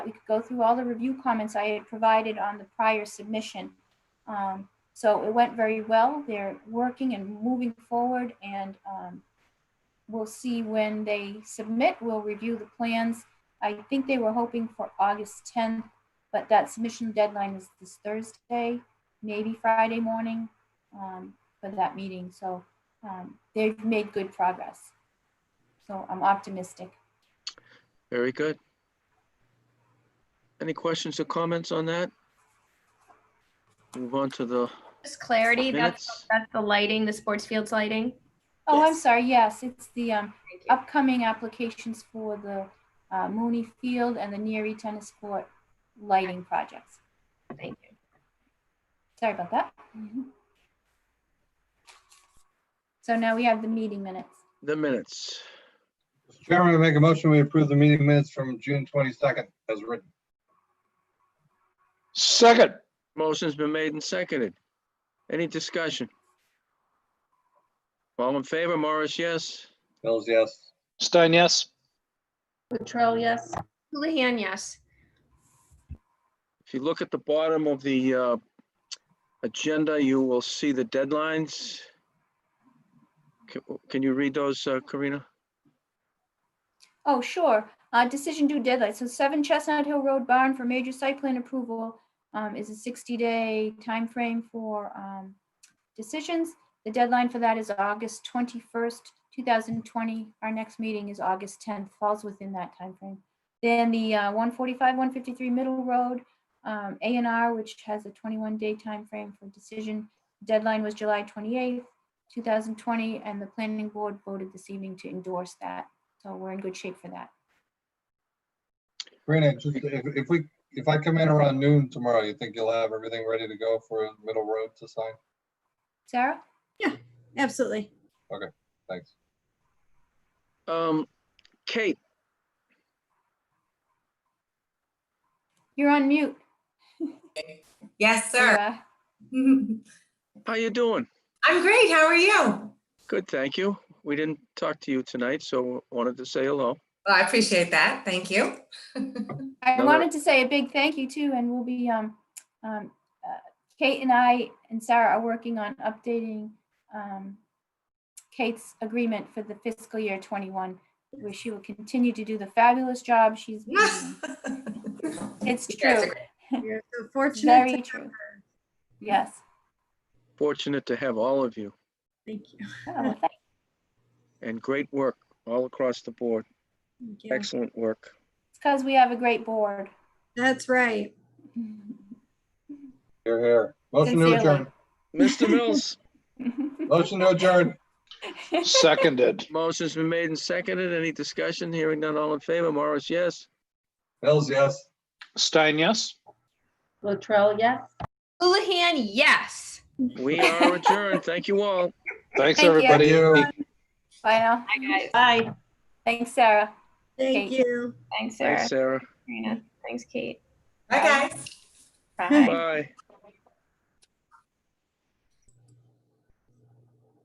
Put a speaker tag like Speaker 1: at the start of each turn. Speaker 1: we could go through all the review comments I had provided on the prior submission. Um, So it went very well. They're working and moving forward and um, we'll see when they submit. We'll review the plans. I think they were hoping for August 10th, but that submission deadline is this Thursday, maybe Friday morning um, for that meeting. So um, they've made good progress. So I'm optimistic.
Speaker 2: Very good. Any questions or comments on that? Move on to the
Speaker 3: Just clarity, that's,
Speaker 2: minutes.
Speaker 3: that's the lighting, the sports fields lighting.
Speaker 1: Oh, I'm
Speaker 3: Yes.
Speaker 1: sorry. Yes, it's the um,
Speaker 3: Thank you.
Speaker 1: upcoming applications for the uh, Mooney Field and the Neary Tennis Court lighting projects.
Speaker 3: Thank you.
Speaker 1: Sorry about that. Mm-hmm. So now we have the meeting minutes.
Speaker 2: The minutes.
Speaker 4: Mr. Chairman, I make a motion, we approve the meeting minutes from June 22nd as written.
Speaker 5: Second,
Speaker 2: Motion's been made and seconded. Any discussion? All in favor, Morris, yes.
Speaker 4: Mills, yes.
Speaker 5: Stein, yes.
Speaker 6: Latrell, yes.
Speaker 3: Houlihan, yes.
Speaker 2: If you look at the bottom of the uh, agenda, you will see the deadlines. Ca- Can you read those, uh, Karina?
Speaker 1: Oh, sure. Uh, Decision due deadline. So 7 Chestnut Hill Road Barn for major site plan approval um, is a 60-day time frame for um, decisions. The deadline for that is August 21st, 2020. Our next meeting is August 10th, falls within that time frame. Then the uh, 145, 153 Middle Road, um, A and R, which has a 21-day time frame for decision. Deadline was July 28th, 2020, and the planning board voted this evening to endorse that. So we're in good shape for that.
Speaker 4: Karina, just if, if we, if I come in around noon tomorrow, you think you'll have everything ready to go for Middle Road to sign?
Speaker 1: Sarah?
Speaker 6: Absolutely.
Speaker 4: Thanks.
Speaker 2: Um, Kate,
Speaker 1: You're on mute. uh,
Speaker 7: Yes, sir.
Speaker 1: Sarah.
Speaker 7: I'm
Speaker 2: how you doing?
Speaker 7: great. How are you? Well,
Speaker 2: Good, thank you. We didn't talk to you tonight, so wanted to say hello.
Speaker 7: I appreciate that. Thank you.
Speaker 1: I
Speaker 2: No, no.
Speaker 1: wanted to say a big thank you too, and we'll be, um, um, uh, Kate and I and Sarah are working on updating, um, Kate's agreement for the fiscal year twenty-one, where she will continue to do the fabulous job she's been doing. It's
Speaker 7: You guys are
Speaker 1: true,
Speaker 7: great.
Speaker 6: You're so fortunate. to
Speaker 1: very
Speaker 6: have
Speaker 1: true.
Speaker 6: her.
Speaker 1: Yes.
Speaker 2: Fortunate to have all of you
Speaker 6: Thank you.
Speaker 1: Oh, well, thank-
Speaker 2: and great work all across the board.
Speaker 6: Thank you.
Speaker 2: Excellent work.
Speaker 1: It's because we have a great board.
Speaker 6: That's right.
Speaker 4: You're here. Motion to
Speaker 1: Sincerely.
Speaker 4: adjourn.
Speaker 2: Mr. Mills,
Speaker 4: Motion to adjourn.
Speaker 5: Seconded.
Speaker 2: motion's been made and seconded. Any discussion? Hearing none, all in favor. Morris, yes.
Speaker 4: Mills, yes.
Speaker 5: Stein, yes.
Speaker 6: Latrell, yes.
Speaker 3: Houlihan, yes.
Speaker 2: We are adjourned. Thank you all.
Speaker 5: Thanks,
Speaker 1: Thank you.
Speaker 4: Thank
Speaker 5: everybody.
Speaker 4: you.
Speaker 1: Bye now.
Speaker 3: Hi, guys.
Speaker 6: Bye.
Speaker 1: Thanks, Sarah.
Speaker 6: Thank
Speaker 1: Kate.
Speaker 6: you.
Speaker 3: Thanks, Sarah.
Speaker 2: Thanks, Sarah.
Speaker 3: Karina. Thanks, Kate.
Speaker 7: Bye, guys.
Speaker 3: Bye.
Speaker 2: Bye.